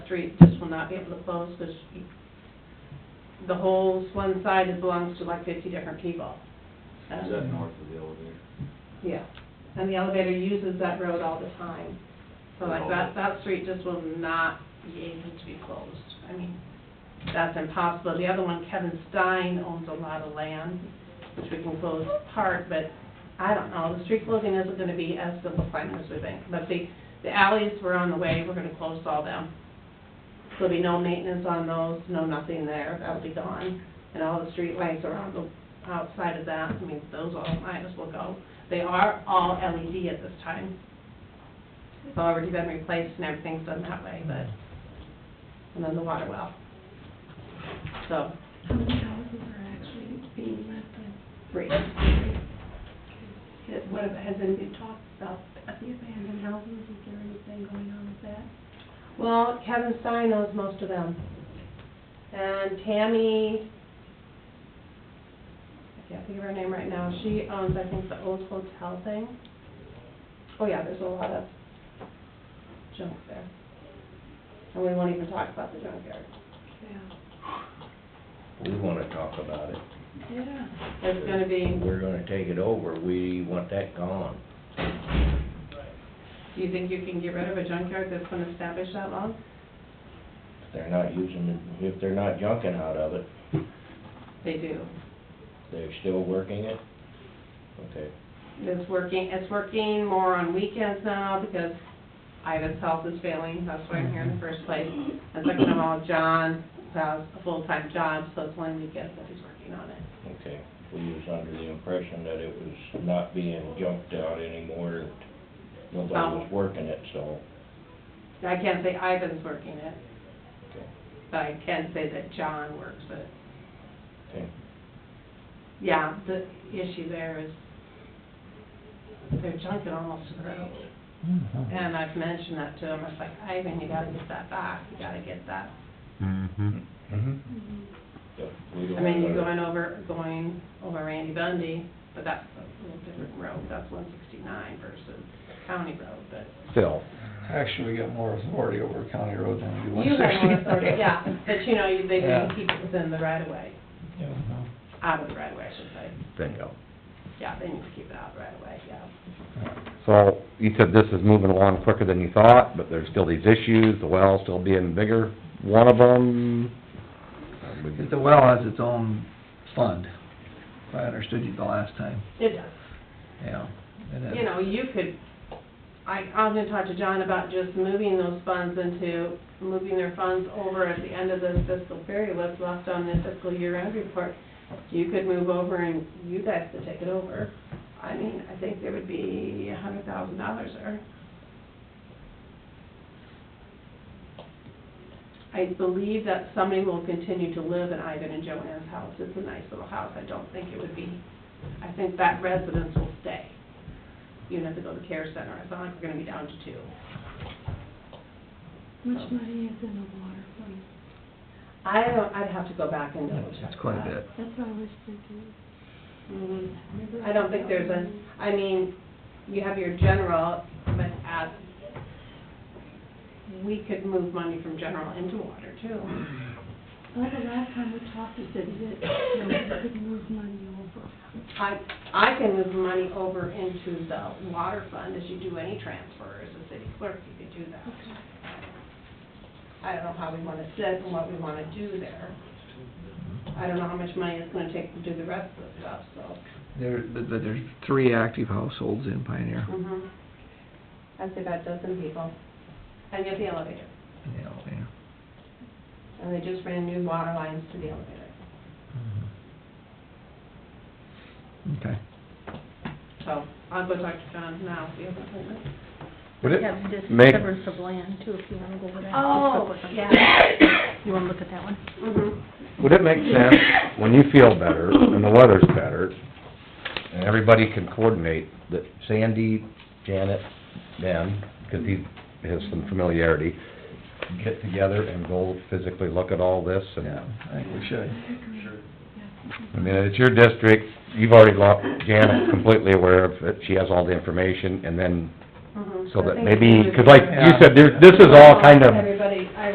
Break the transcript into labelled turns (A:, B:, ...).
A: street, this will not be able to close, because the whole one side is- belongs to like fifty different people. Um,
B: Is that north of the elevator?
A: Yeah, and the elevator uses that road all the time. So like that, that street just will not be able to be closed. I mean, that's impossible. The other one, Kevin Stein owns a lot of land, which we can close part, but I don't know, the street closing isn't gonna be as simple plan as we think. But the, the alleys were on the way, we're gonna close all them. There'll be no maintenance on those, no nothing there, that'll be gone. And all the street lights around the, outside of that, I mean, those all might as well go. They are all LED at this time. It's already been replaced and everything's done that way, but, and then the water well. So,
C: How many houses are actually being rented?
A: three.
C: Has- What, has anybody talked about the abandoned houses? Is there anything going on with that?
A: Well, Kevin Stein knows most of them. And Tammy, I can't think of her name right now, she owns, I think, the old hotel thing. Oh, yeah, there's a lot of junk there. And we won't even talk about the junkyard.
C: Yeah.
D: We wanna talk about it.
C: Yeah.
A: It's gonna be,
D: We're gonna take it over, we want that gone.
A: do you think you can get rid of a junkyard that's been established that long?
D: If they're not using it, if they're not junking out of it,
A: They do.
D: they're still working it? Okay.
A: It's working, it's working more on weekends now because Ida's health is failing, that's why I'm here in the first place. And second of all, John has a full-time job, so it's only weekends that he's working on it.
D: Okay, we was under the impression that it was not being junked out anymore, nobody was
B: Oh.
D: working it, so,
A: I can't say Ivan's working it,
D: okay,
A: but I can say that John works it.
D: okay.
A: Yeah, the issue there is they're junking almost to the road. And I've mentioned that to him, I was like, Ivan, you gotta get that back, you gotta get that
E: Mm-hmm.
F: Mm-hmm.
C: Mhm.
D: But we don't
A: I mean, you're
D: wanna-
A: going over, going over Randy Bundy, but that's a little different road, that's one sixty-nine versus county road, but.
E: Phil.
F: Actually, we got more authority over county road than we do one
A: You
F: sixty.
A: have more authority, yeah, but you know, you- they
F: Yeah.
A: can keep it within the right of way,
F: Yeah.
A: out of the right of way, I should say,
E: Bingo.
A: yeah, they need to keep it out of the right of way, yeah.
E: So, you said this is moving along quicker than you thought, but there's still these issues, the well still being bigger, one of them.
F: The well has its own fund, if I understood you the last time,
A: It does,
F: yeah. And it-
A: you know, you could, I, I'm gonna talk to John about just moving those funds into, moving their funds over at the end of this fiscal period, what's left on the fiscal year-end report. You could move over and you guys could take it over. I mean, I think there would be a hundred thousand dollars there. I believe that somebody will continue to live in Ivan and Joanne's house. It's a nice little house. I don't think it would be, I think that residence will stay. Even if they go to care center, I thought we're gonna be down to two.
C: Which money is in the water fund?
A: I don't, I'd have to go back and double check
F: It's quite a
A: that.
F: bit.
C: That's what I was thinking.
A: Mhm. I don't think there's a, I mean, you have your general, but at, we could move money from general into water too.
C: Well, the last time we talked, you said that, you know, we could move money over.
A: I, I can move money over into the water fund as you do any transfer as a city clerk, you could do that.
C: Okay.
A: I don't know how we wanna sit and what we wanna do there. I don't know how much money it's gonna take to do the rest of the stuff, so.
F: There, but but there's three active households in Pioneer,
A: Mhm. That's about a dozen people. And get the elevator.
F: you know, yeah.
A: And they just ran new water lines to the elevator.
F: Okay.
A: So I'll go talk to John now, see if I can.
E: Would it
G: Yeah, just
E: make,
G: severance of land too, if you wanna go over that.
A: Oh, yeah.
G: You wanna look at that one?
A: Mhm.
E: would it make sense, when you feel better and the weather's better, and everybody can coordinate, that Sandy, Janet, Ben, because he has some familiarity, get together and go physically look at all this and
F: Yeah, I think we should.
E: I mean, it's your district, you've already lost, Janet's completely aware of it, she has all the information, and then,
A: Mhm.
E: so
A: I
E: that
A: think
E: maybe,
A: it's-
E: because like you said, there, this is all kind of